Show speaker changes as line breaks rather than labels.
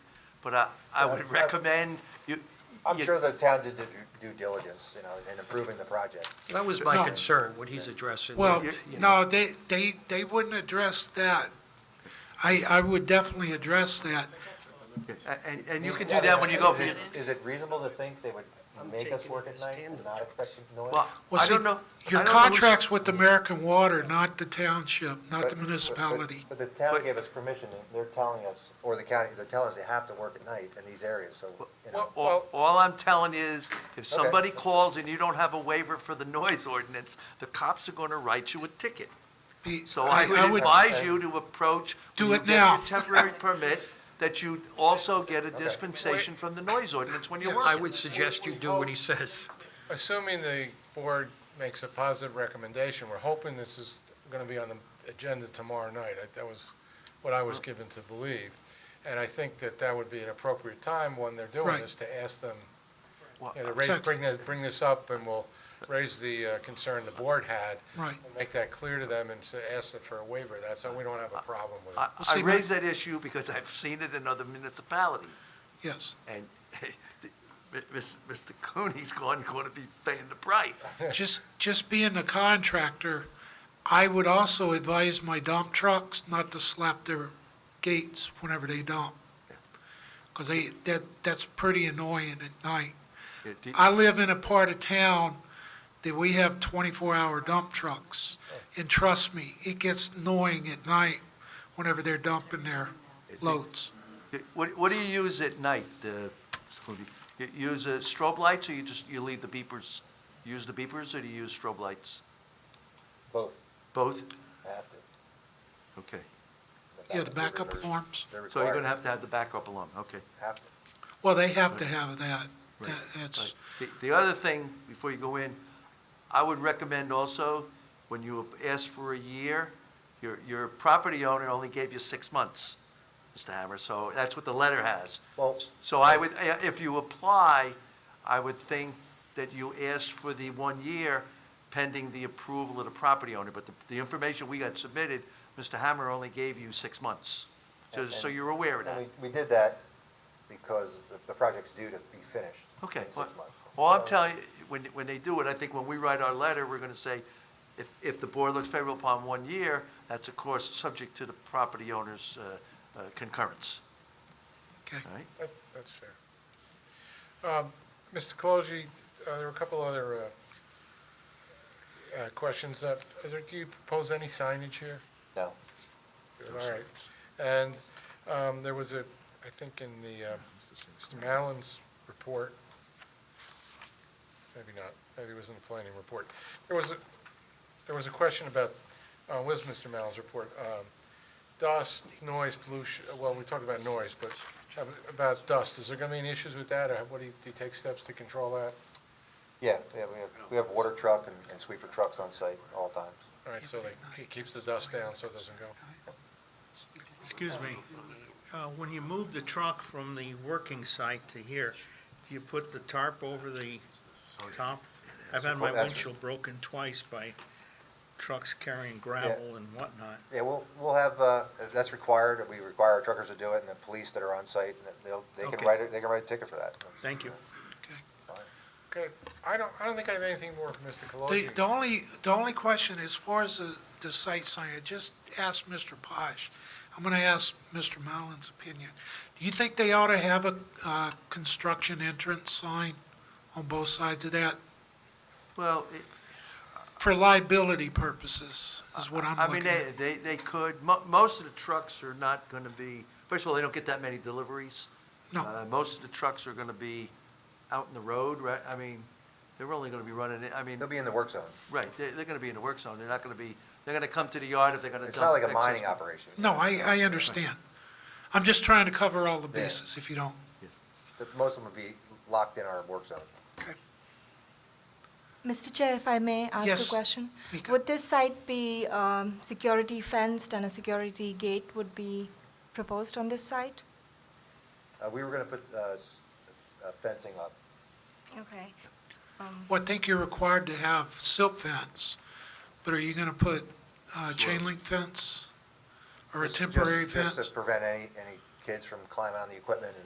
But I, I would recommend you.
I'm
you-
sure the town did their due diligence, you know, in improving the project.
That was my
No.
concern, what he's addressing.
Well,
you know.
no, they, they, they wouldn't address that. I, I would definitely address that.
a- And, and you can do that when you go for your,
Is it reasonable to think they would make us work at night and not expect noise?
well,
Well,
I
see,
don't know. I
Your
don't know who's-
contract's with American Water, not the township,
But-
not the
but- but-
municipality.
But the town
But-
gave us permission, and they're telling us, or the county, they're telling us they have to work at night in these areas, so, you know.
All, all I'm telling is, if somebody calls and you don't have a waiver for the noise ordinance, the cops are gonna write you a ticket.
Be-
So I would advise you to approach.
Do
when
it
you get
now.
your temporary permit, that you also get a dispensation from the noise ordinance when you're
Yes.
I
working.
would suggest you do what he says.
Assuming the board makes a positive recommendation, we're hoping this is going to be on the agenda tomorrow night. I- That was what I was given to believe. And I think that that would be an appropriate time when they're doing
Right.
this to ask them,
Well,
you know, raise-
Exactly.
bring this, bring this up and we'll raise the uh, concern the board had.
Right.
and Make that clear to them and say- ask them for a waiver. That's, how we don't have a problem with
I,
it.
Well,
I
see, my-
raise that issue because I've seen it in other municipalities.
Yes.
And Mr. Cooney's going, going to be paying the price.
Just, just being the contractor, I would also advise my dump trucks not to slap their gates whenever they dump. Because they, that, that's pretty annoying at night.
Yeah, do-
I live in a part of town that we have 24-hour dump trucks.
Oh.
And trust me, it gets annoying at night whenever they're dumping their loads.
What, what do you use at night, uh, Mr. Cooney? You use uh, strobe lights, or you just, you leave the beepers, use the beepers, or do you use strobe lights?
Both
Both?
have to.
Okay.
Yeah, the backup alarms.
They're
So you're going
required,
to have to have the backup alarm, okay.
have to.
Well, they have to have that. That-
Right,
That's,
right. The, the other thing, before you go in, I would recommend also, when you ask for a year, your, your property owner only gave you six months, Mr. Hammer, so that's what the letter has.
Well-
So I would, eh, if you apply, I would think that you asked for the one year pending the approval of the property owner, but the, the information we got submitted, Mr. Hammer only gave you six months. So, so you're aware of that.
And we, we did that because the, the project's due to be finished.
Okay,
in six
well,
months.
well, I'm telling you, when, when they do it, I think when we write our letter, we're gonna say, if, if the board looks favorable upon one year, that's of course subject to the property owner's, uh, uh, concurrence,
okay.
all right?
That- That's fair. Um, Mr. Colosi, uh, there were a couple other uh, uh, questions. Uh, is there- Do you propose any signage here?
No,
All right. And um, there was a, I think in the, uh, Mr. Mallon's report, maybe not, maybe it was in the planning report. There was a, there was a question about, uh, was Mr. Mallon's report, um, dust, noise, pollution, uh, well, we talked about noise, but about dust, is there going to be any issues with that? Or what, do you, do you take steps to control that?
yeah, yeah, we have, we have water truck and, and sweeper trucks on site all times.
All right, so they- it keeps the dust down so it doesn't go.
Excuse me, uh, when you move the truck from the working site to here, do you put the tarp over the top? I've had my
Well, that's-
windshield broken twice by trucks carrying gravel and whatnot.
Yeah, we'll, we'll have, uh, that's required, we require our truckers to do it, and the police that are on site, and they'll, they can
Okay.
write, it. they can write a ticket for that.
Thank you.
Okay, I don't, I don't think I have anything more from Mr.
The,
Colosi.
the only, the only question, as far as the, the site sign, I just asked Mr. Posh, I'm gonna ask Mr. Mallon's opinion. Do you think they ought to have a, uh, construction entrance sign on both sides of that
Well, it-
for liability purposes, is what I'm
I mean,
looking at?
they, they, they could, mo- most of the trucks are not gonna be, first of all, they don't get that many deliveries.
No.
Uh, Most of the trucks are gonna be out in the road, right, I mean, they're only gonna be running, it- I mean,
They'll be in the work zone.
right, they're, they're gonna be in the work zone, they're not gonna be, they're gonna come to the yard if they're gonna dump.
It's not like a
excess
mining
material.
operation.
No, I, I understand. I'm just trying to cover all the
Yeah.
bases, if you don't.
But Most of them would be locked in our work zone.
Mr. Chair, if I may ask
Yes,
a question?
Mika.
Would this site be um, security fenced and a security gate would be proposed on this site?
Uh, we were gonna put, uh, s- uh, fencing up.
Okay.
Well, I think you're required to have silk fence, but are you gonna put, uh, chain link fence? Or a
Just- just-
temporary
just
fence?
to prevent any, any kids from climbing on the equipment and